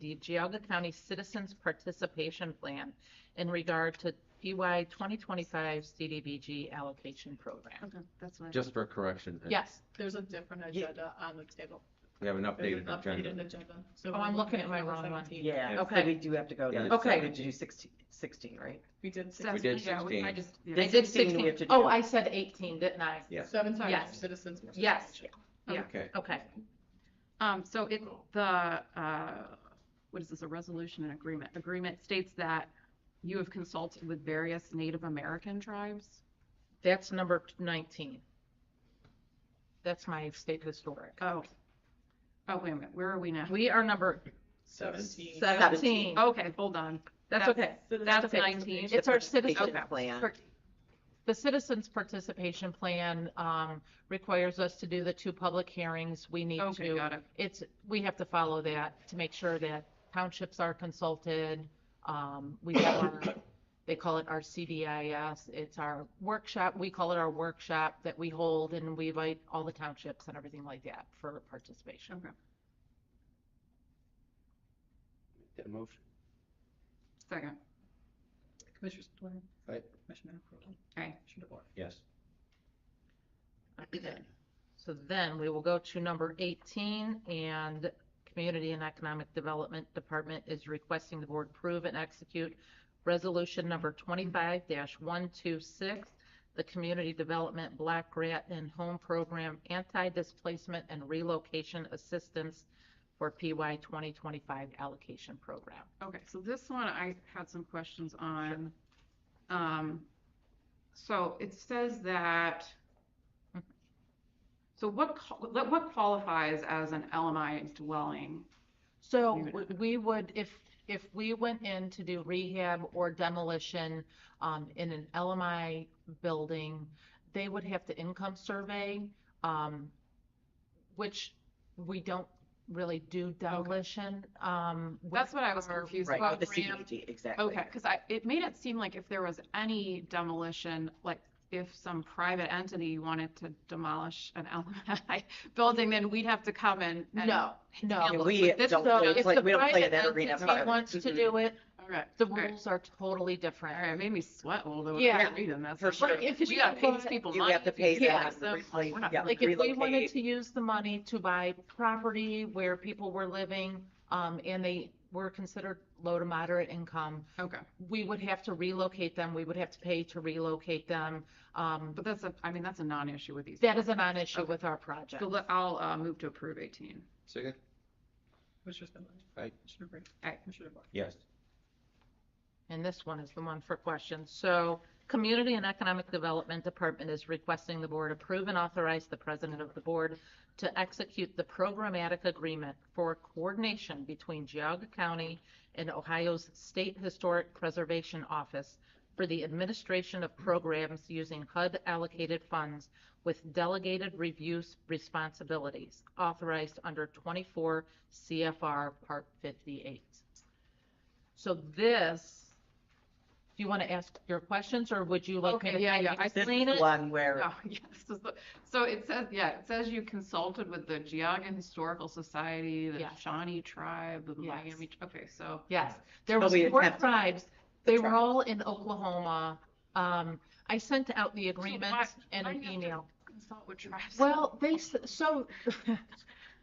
the Geauga County Citizens Participation Plan in regard to PY 2025 CDBG allocation program. Okay, that's what I. Just for correction. uh, Yes, There's a different agenda on the table. We have an There's an updated updated agenda. agenda. So Oh, I'm we're looking at my number wrong one. 17. Yeah, Okay. so we do have to go Yeah, down. it's- Okay. We have to do 16, 16, right? We did six- We That's- did yeah, we- I 16. just- I The did 16 we 16. have to do. Oh, I said 18, didn't I? Yeah. seven times Yes. citizens. Yes. yeah. Okay. Okay, Um, so it, the, uh, what is this, a resolution and agreement? Agreement states that you have consulted with various Native American tribes? that's number 19. That's my state historic. Oh. Oh, wait a minute, where are we now? We are number Seventeen. 17. Okay, hold on. That's okay. That's okay. nineteen. It's our citizen, Okay. Plan. the citizens' participation plan um, requires us to do the two public hearings. We need Okay, to, got it. it's, we have to follow that to make sure that townships are consulted. Um, We have our, they call it our CDIS, it's our workshop, we call it our workshop that we hold and we invite all the townships and everything like that for participation. Okay, That motion. second. Commissioner Spillier. Aye. Commissioner Crowley. Aye. Commissioner DeBoer. Yes. Okay. So then we will go to number 18, and Community and Economic Development Department is requesting the board approve and execute Resolution Number 25-126, the Community Development Black Grant and Home Program Anti-Displacement and Relocation Assistance for PY 2025 Allocation Program. Okay, so this one I had some questions on. Um, so it says that, so what, qual- what qualifies as an LMI dwelling? So Leave it w- we would, if, if we went in to do rehab or demolition um, in an LMI building, they would have to income survey, um, which we don't really do demolition. um, with That's what I was our- confused Right, about. with the Graham. CDBG, exactly. Okay, because I, it made it seem like if there was any demolition, like if some private entity wanted to demolish an LMI building, then we'd have to come and. and- No, And no. we This- don't, So we don't if play, the we don't play in private that arena. entity part. wants to Mhm. do it, All right, the all right, rules are totally All different. right, it made me sweat a little bit Yeah. reading this. For I'm like, sure. If We you gotta pay go- these people You money. have to pay Yeah, them, so- replace, we're not- yeah, Like if we wanted relocate. to use the money to buy property where people were living, um, and they were considered low to moderate income, Okay, we would have to relocate them, we would have to pay to relocate them. Um, but that's a, I mean, that's a non-issue with these. that is a non-issue Okay. with our project. So let- I'll uh, move to approve 18. Second? Commissioner Spillier. Aye. Commissioner Brea. Aye. Commissioner DeBoer. Yes. And this one is the one for questions. So Community and Economic Development Department is requesting the board approve and authorize the president of the board to execute the programmatic agreement for coordination between Geauga County and Ohio's State Historic Preservation Office for the administration of programs using HUD allocated funds with delegated review responsibilities authorized under 24 CFR Part 58. So this, do you want to ask your questions or would you like me Okay, yeah, yeah, to I- This explain is it? one where, Oh, yes, this is the- so it says, yeah, it says you consulted with the Geauga Historical Society, the Yes. Shawnee Tribe, the Yes. Miami, okay, so. Yes, there But was we didn't four have to- tribes. They were tribes. all in Oklahoma. Um, I sent out the why- agreement and why an you have to- email. Consult with tribes. Well, they, s- so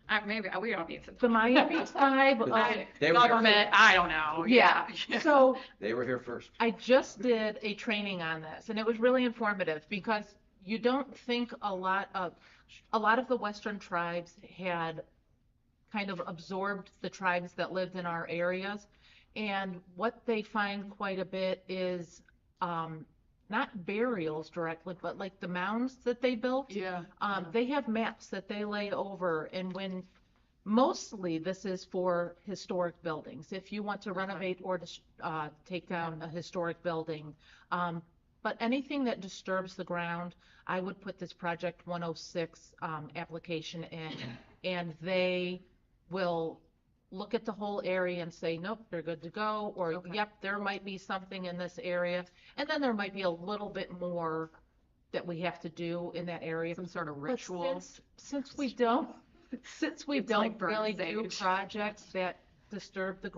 Uh, Maybe, uh, we don't need to. the Miami tribe, um, I- They were- Government, I don't know, yeah. Yeah. so They were here first. I just did a training on this and it was really informative because you don't think a lot of, a lot of the Western tribes had kind of absorbed the tribes that lived in our areas. And what they find quite a bit is um, not burials directly, but like the mounds that they built. Yeah. Um, they have maps that they lay over and when, mostly this is for historic buildings. If you want to renovate or, dis- uh, take down a historic building. Um, but anything that disturbs the ground, I would put this project one oh six, um, application in. And they will look at the whole area and say, nope, they're good to go, or Okay. yep, there might be something in this area. And then there might be a little bit more that we have to do in that area. Some sort of But ritual. since- Since we don't, since we It's like don't really Burns do Age. projects that disturb the